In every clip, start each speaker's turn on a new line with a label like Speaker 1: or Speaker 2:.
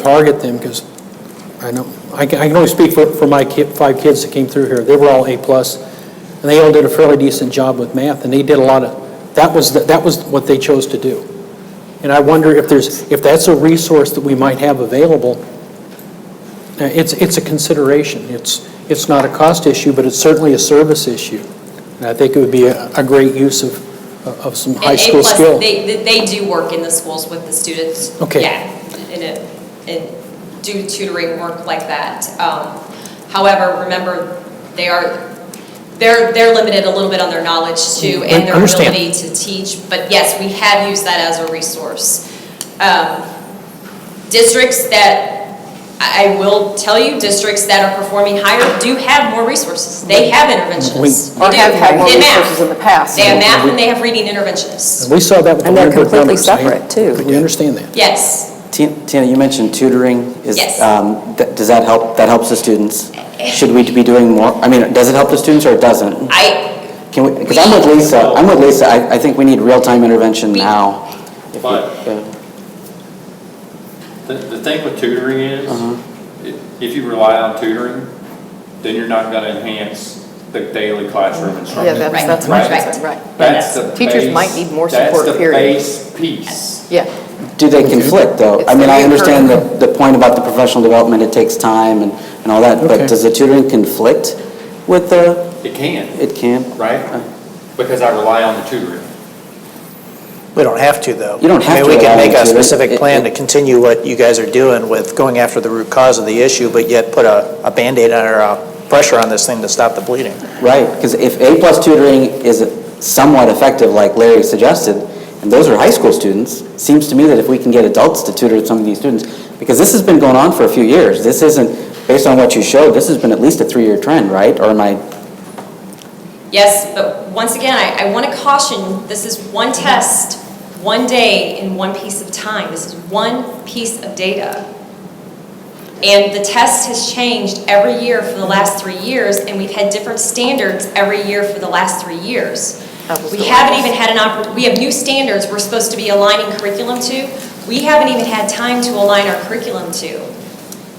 Speaker 1: target them, because I know, I can I can only speak for for my ki- five kids that came through here. They were all A-plus, and they all did a fairly decent job with math, and they did a lot of, that was, the- that was what they chose to do. And I wonder if there's, if that's a resource that we might have available, Uh, it's, it's a consideration. It's, it's not a cost issue, but it's certainly a service issue. And I think it would be a a great use of, of some high
Speaker 2: And
Speaker 1: school
Speaker 2: A-plus,
Speaker 1: skill.
Speaker 2: They, they- they do work in the schools with the students.
Speaker 1: Okay.
Speaker 2: Yeah, and, it- and do tutoring work like that. Um, However, remember, they are, they're, they're limited a little bit on their knowledge too and their
Speaker 1: Understand.
Speaker 2: ability to teach. But yes, we have used that as a resource. Um, Districts that, I I will tell you, districts that are performing higher do have more resources. They have interventionists.
Speaker 1: We-
Speaker 3: Or
Speaker 2: They
Speaker 3: have
Speaker 2: do.
Speaker 3: had more
Speaker 2: In math.
Speaker 3: resources in the past.
Speaker 2: They have math and they have reading interventionists.
Speaker 1: And we saw that with the
Speaker 3: And they're
Speaker 1: Lunenburg
Speaker 3: completely
Speaker 1: numbers. I-
Speaker 3: separate, too.
Speaker 1: We understand that.
Speaker 2: Yes,
Speaker 4: Ti- Tina, you mentioned tutoring. Is,
Speaker 2: Yes.
Speaker 4: um, th- Does that help, that helps the students? Should we be doing more? I mean, does it help the students or it doesn't?
Speaker 2: I,
Speaker 4: Can we, because I'm with Lisa, I'm with Lisa, I I think we need real-time intervention
Speaker 2: We-
Speaker 4: now. If we-
Speaker 5: But-
Speaker 4: yeah.
Speaker 5: The, the thing with tutoring is, i- if you rely on tutoring, then you're not gonna enhance the daily classroom
Speaker 3: Yeah,
Speaker 5: instruction.
Speaker 3: that's, that's my concern, right.
Speaker 5: That's the
Speaker 3: Teachers
Speaker 5: base-
Speaker 3: might need more support, period.
Speaker 5: That's the base piece.
Speaker 3: Yeah,
Speaker 4: Do they conflict, though?
Speaker 3: It's
Speaker 4: I mean, I
Speaker 3: reoccurring.
Speaker 4: understand the, the point about the professional development, it takes time and, and all that,
Speaker 1: Okay.
Speaker 4: but does the tutoring conflict with the,
Speaker 5: It can,
Speaker 4: it can?
Speaker 5: right? Because I rely on the tutoring.
Speaker 6: We don't have to, though.
Speaker 4: You don't have
Speaker 6: I mean,
Speaker 4: to
Speaker 6: we
Speaker 4: allow
Speaker 6: can make
Speaker 4: them
Speaker 6: a
Speaker 4: to. It-
Speaker 6: specific
Speaker 4: it-
Speaker 6: plan to continue what you guys are doing with going after the root cause of the issue, but yet put a, a Band-Aid on- or a pressure on this thing to stop the bleeding.
Speaker 4: Right, because if A-plus tutoring is somewhat effective, like Larry suggested, and those are high school students, seems to me that if we can get adults to tutor some of these students, because this has been going on for a few years, this isn't, based on what you showed, this has been at least a three-year trend, right? Or am I,
Speaker 2: yes, but once again, I, I want to caution, this is one test, one day in one piece of time. This is one piece of data. And the test has changed every year for the last three years, and we've had different standards every year for the last three years.
Speaker 3: Apples
Speaker 2: We
Speaker 3: to
Speaker 2: haven't
Speaker 3: apples.
Speaker 2: even had an oppor, we have new standards we're supposed to be aligning curriculum to. We haven't even had time to align our curriculum to.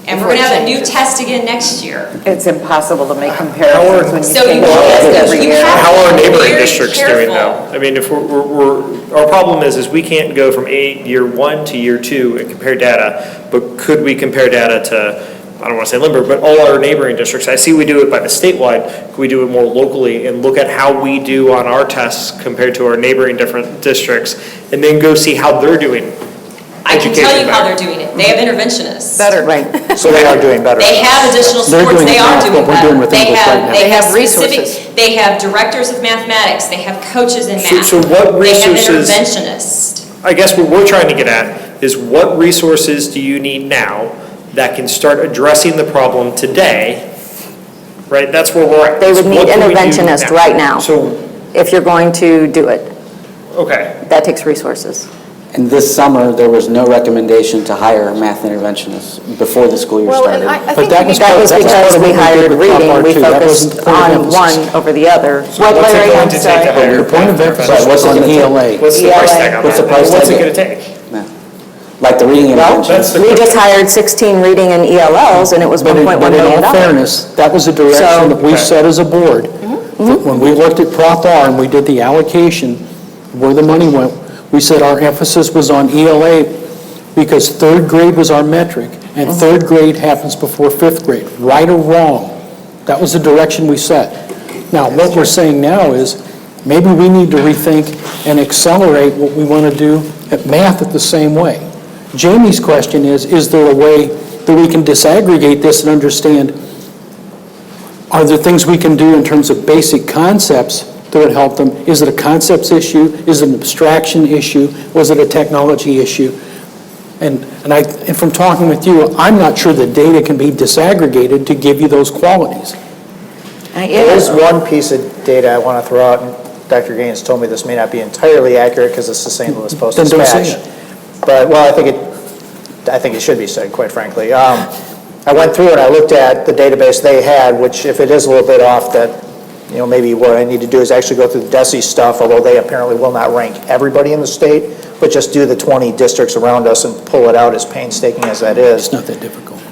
Speaker 2: And we're
Speaker 3: Before
Speaker 2: going
Speaker 3: it
Speaker 2: to have a new
Speaker 3: changes.
Speaker 2: test again next year.
Speaker 3: it's impossible to make comparisons when you
Speaker 2: So you
Speaker 3: think
Speaker 2: can't-
Speaker 3: about it every
Speaker 2: you
Speaker 3: year.
Speaker 2: have-
Speaker 7: How are our neighboring
Speaker 2: Very
Speaker 7: districts doing now?
Speaker 2: careful.
Speaker 7: I mean, if we're- we're, we're, our problem is, is we can't go from eight, year one to year two and compare data, but could we compare data to, I don't want to say Limber, but all our neighboring districts? I see we do it by the statewide, could we do it more locally and look at how we do on our tests compared to our neighboring different districts? And then go see how they're doing.
Speaker 2: I can tell
Speaker 7: Education
Speaker 2: you how they're
Speaker 7: better.
Speaker 2: doing it. They have interventionists.
Speaker 3: Better. Right.
Speaker 6: So they are doing better.
Speaker 2: They have additional
Speaker 1: They're
Speaker 2: supports,
Speaker 1: doing
Speaker 2: they
Speaker 1: it
Speaker 2: are
Speaker 1: now,
Speaker 2: doing
Speaker 1: what we're
Speaker 2: better.
Speaker 1: doing with English right now.
Speaker 2: They have
Speaker 3: resources.
Speaker 2: specific, they have directors of mathematics, they have coaches in
Speaker 7: So-
Speaker 2: math.
Speaker 7: so what resources-
Speaker 2: They have interventionists.
Speaker 7: I guess what we're trying to get at is what resources do you need now that can start addressing the problem today? Right, that's where we're at.
Speaker 8: They would need
Speaker 7: What can we do
Speaker 8: interventionist right now.
Speaker 7: So,
Speaker 8: if you're going to do it.
Speaker 7: okay,
Speaker 8: That takes resources.
Speaker 4: and this summer, there was no recommendation to hire math interventionists before the school year
Speaker 3: Well,
Speaker 4: started.
Speaker 3: and I, I
Speaker 1: But
Speaker 3: think
Speaker 1: that
Speaker 3: we
Speaker 1: was
Speaker 3: need
Speaker 8: That was
Speaker 1: That's part
Speaker 8: because
Speaker 1: of
Speaker 8: we
Speaker 1: what we did
Speaker 8: hired
Speaker 1: with Top
Speaker 8: reading,
Speaker 1: Bar
Speaker 8: we
Speaker 1: too. That wasn't
Speaker 8: focused
Speaker 1: part of
Speaker 8: on
Speaker 1: emphasis.
Speaker 8: one over the other. What,
Speaker 7: what's it
Speaker 8: Larry,
Speaker 7: going
Speaker 8: I'm
Speaker 7: to take
Speaker 8: sorry?
Speaker 7: to hire?
Speaker 1: Your point of emphasis
Speaker 4: Right,
Speaker 1: was
Speaker 4: what's
Speaker 1: on E
Speaker 4: the deal?
Speaker 1: ELA.
Speaker 7: what's the price
Speaker 8: ELA.
Speaker 7: tag on that?
Speaker 4: What's the price
Speaker 7: What's it
Speaker 4: tag?
Speaker 7: gonna take?
Speaker 4: Like the reading intervention?
Speaker 7: That's the
Speaker 8: We
Speaker 7: question.
Speaker 8: just hired 16 reading and ELLs, and it was
Speaker 1: But in,
Speaker 8: 1.1
Speaker 1: but in
Speaker 8: million
Speaker 1: all
Speaker 8: dollars.
Speaker 1: fairness, that was a direction that we set as a board. That When we looked at Prop R and we did the allocation, where the money went, we said our emphasis was on ELA because third grade was our metric, and third grade happens before fifth grade, right or wrong. That was the direction we set. Now, what we're saying now is, maybe we need to rethink and accelerate what we want to do at math at the same way. Jamie's question is, is there a way that we can disaggregate this and understand, are there things we can do in terms of basic concepts that would help them? Is it a concepts issue? Is it an abstraction issue? Was it a technology issue? And, and I, and from talking with you, I'm not sure the data can be disaggregated to give you those qualities.
Speaker 8: Uh,
Speaker 6: There is one piece of data I want to throw out, and Dr. Gaines told me this may not be entirely accurate because it's the St. Louis
Speaker 1: Then don't say
Speaker 6: Post-Dispatch.
Speaker 1: it.
Speaker 6: But, well, I think it, I think it should be said, quite frankly. Um, I went through and I looked at the database they had, which if it is a little bit off, that You know, maybe what I need to do is actually go through the DESI stuff, although they apparently will not rank everybody in the state, but just do the 20 districts around us and pull it out as painstaking as that is.
Speaker 1: It's not that difficult.